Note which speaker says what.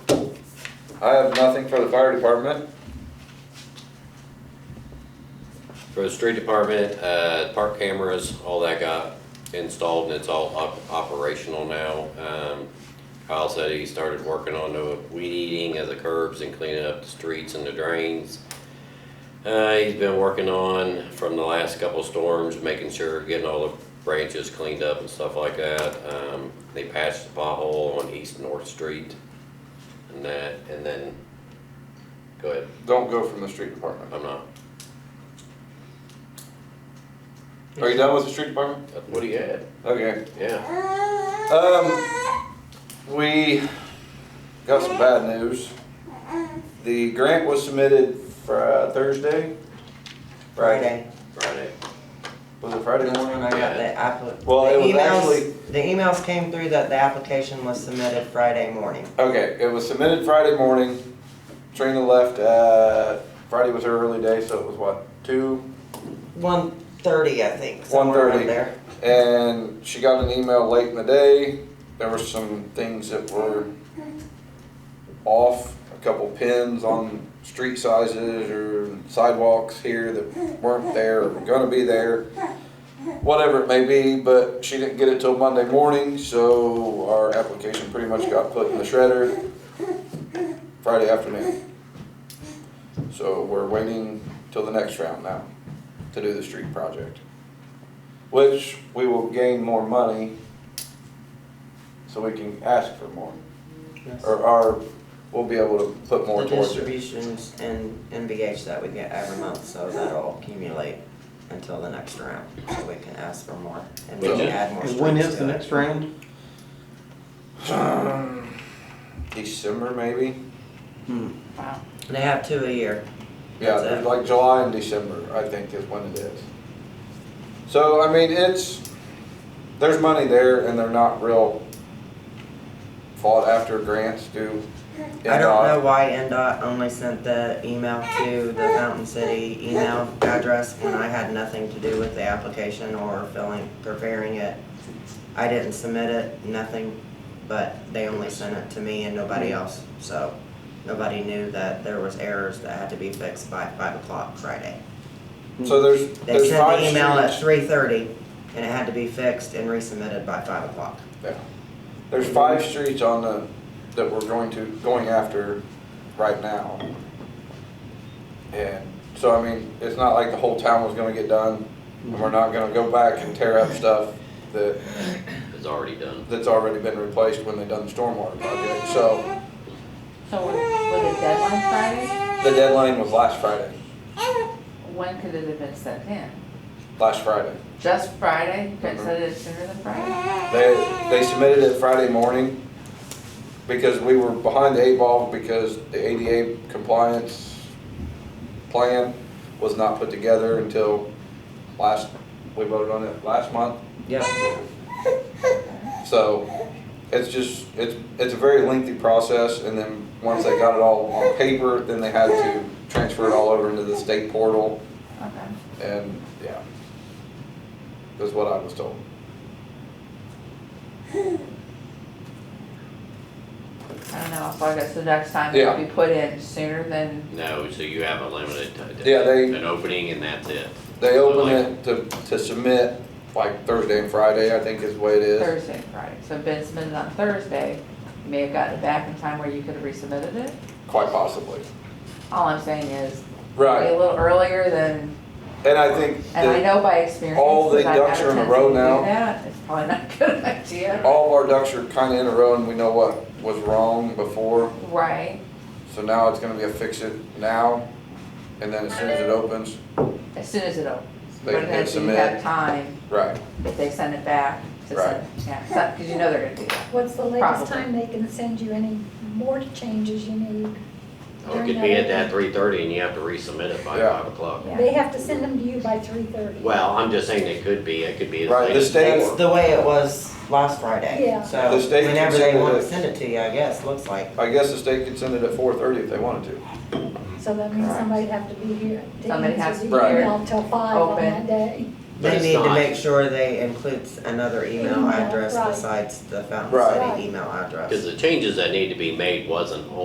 Speaker 1: I have nothing for the fire department.
Speaker 2: For the street department, uh, park cameras, all that got installed and it's all op- operational now. Um, Kyle said he started working on the weed eating of the curbs and cleaning up the streets and the drains. Uh, he's been working on from the last couple storms, making sure, getting all the branches cleaned up and stuff like that. Um, they patched the pothole on East North Street and that, and then, go ahead,
Speaker 1: Don't go from the street department.
Speaker 2: I'm not,
Speaker 1: Are you done with the street department?
Speaker 2: what do you add?
Speaker 1: Okay.
Speaker 2: Yeah.
Speaker 1: Um, we got some bad news. The grant was submitted Fri- Thursday?
Speaker 3: Friday.
Speaker 2: Friday.
Speaker 1: Was it Friday
Speaker 3: That's
Speaker 1: morning?
Speaker 3: when I got the app.
Speaker 1: Well,
Speaker 3: the
Speaker 1: it was
Speaker 3: emails-
Speaker 1: actually-
Speaker 3: The emails came through that the application was submitted Friday morning.
Speaker 1: Okay, it was submitted Friday morning. Trina left, uh, Friday was her early day, so it was what, two?
Speaker 3: One thirty, I think, somewhere
Speaker 1: 1:30.
Speaker 3: around there.
Speaker 1: And she got an email late in the day. There were some things that were off, a couple pins on street sizes or sidewalks here that weren't there or were gonna be there. Whatever it may be, but she didn't get it till Monday morning, so our application pretty much got put in the shredder Friday afternoon. So we're waiting till the next round now to do the street project which we will gain more money so we can ask for more,
Speaker 3: Yes.
Speaker 1: or, or we'll be able to put more
Speaker 3: The
Speaker 1: towards it.
Speaker 3: distributions in NBH that we get every month, so that'll accumulate until the next round, so we can ask for more and we can
Speaker 2: Which-
Speaker 3: add more streets
Speaker 4: And
Speaker 3: to it.
Speaker 4: when is the next round?
Speaker 1: December maybe?
Speaker 3: They have two a year.
Speaker 1: Yeah,
Speaker 3: That's it.
Speaker 1: like July and December, I think is when it is. So, I mean, it's, there's money there and they're not real fought after grants do. uh,
Speaker 3: I don't know why NDOT only sent the email to the Fountain City email address when I had nothing to do with the application or filling, preparing it. I didn't submit it, nothing, but they only sent it to me and nobody else, so nobody knew that there was errors that had to be fixed by five o'clock Friday.
Speaker 1: So there's,
Speaker 3: They
Speaker 1: there's
Speaker 3: sent
Speaker 1: five
Speaker 3: the email at
Speaker 1: streets.
Speaker 3: three thirty and it had to be fixed and resubmitted by five o'clock.
Speaker 1: yeah. There's five streets on the, that we're going to, going after right now. And so, I mean, it's not like the whole town was gonna get done, and we're not gonna go back and tear up stuff that,
Speaker 2: It's already done.
Speaker 1: that's already been replaced when they done the stormwater project. So,
Speaker 5: So was was it deadline Friday?
Speaker 1: the deadline was last Friday,
Speaker 5: When could it have been sent in?
Speaker 1: last Friday.
Speaker 5: Just Friday? Couldn't send it sooner than Friday?
Speaker 1: They, they submitted it Friday morning because we were behind the eight ball because the ADA compliance plan was not put together until last, we voted on it last month.
Speaker 3: Yep.
Speaker 1: So it's just, it's, it's a very lengthy process and then once they got it all on paper, then they had to transfer it all over into the state portal
Speaker 5: Okay.
Speaker 1: and, yeah. That's what I was told.
Speaker 5: I don't know, so I guess the next time it
Speaker 1: Yeah.
Speaker 5: would be put in sooner than,
Speaker 2: No, so you have a limited time.
Speaker 1: Yeah, they-
Speaker 2: An opening and that's it.
Speaker 1: They open it to, to submit like Thursday and Friday, I think is the way it is.
Speaker 5: Thursday, and Friday. So if it's submitted on Thursday, you may have gotten it back in time where you could have resubmitted it.
Speaker 1: Quite possibly.
Speaker 5: All I'm saying is, be a
Speaker 1: Right.
Speaker 5: little earlier than,
Speaker 1: And I think
Speaker 5: and I
Speaker 1: that
Speaker 5: know by experience,
Speaker 1: all the
Speaker 5: because I've
Speaker 1: ducks
Speaker 5: had
Speaker 1: are
Speaker 5: a
Speaker 1: in a
Speaker 5: tendency
Speaker 1: row
Speaker 5: to do
Speaker 1: now.
Speaker 5: that, it's probably not a good idea.
Speaker 1: all of our ducks are kind of in a row and we know what was wrong before.
Speaker 5: Right,
Speaker 1: So now it's gonna be a fix it now. And then as soon as it opens,
Speaker 5: as soon as it opens.
Speaker 1: They
Speaker 5: But
Speaker 1: can
Speaker 5: if you
Speaker 1: submit.
Speaker 5: have time,
Speaker 1: right,
Speaker 5: if they send it back to
Speaker 1: Right.
Speaker 5: send, yeah, because you know they're gonna do that.
Speaker 6: What's the latest
Speaker 5: Probably.
Speaker 6: time they can send you any more changes you need?
Speaker 2: Or oh, It could be at that three thirty and you have to resubmit it by
Speaker 1: Yeah.
Speaker 2: five o'clock.
Speaker 5: Yeah.
Speaker 6: They have to send them to you by three thirty.
Speaker 2: Well, I'm just saying it could be, it could be. as
Speaker 1: Right,
Speaker 2: late
Speaker 1: the
Speaker 2: as
Speaker 1: state-
Speaker 3: That's
Speaker 2: four.
Speaker 3: the way it was last Friday,
Speaker 6: Yeah.
Speaker 3: so
Speaker 1: The state
Speaker 3: whenever they
Speaker 1: considered
Speaker 3: want
Speaker 1: it-
Speaker 3: to send it to you, I guess, looks like.
Speaker 1: I guess the state could send it at four thirty if they wanted to.
Speaker 6: So that means somebody'd have to be here to
Speaker 5: Somebody has
Speaker 6: answer
Speaker 5: to
Speaker 6: the
Speaker 5: be here,
Speaker 6: email till five on
Speaker 5: open.
Speaker 6: that day.
Speaker 2: But
Speaker 3: They
Speaker 2: it's
Speaker 3: need to
Speaker 2: not.
Speaker 3: make sure they include another email
Speaker 6: Email,
Speaker 3: address
Speaker 6: right.
Speaker 3: besides the Fountain
Speaker 1: Right.
Speaker 3: City email address.
Speaker 2: Cause the changes that need to be made wasn't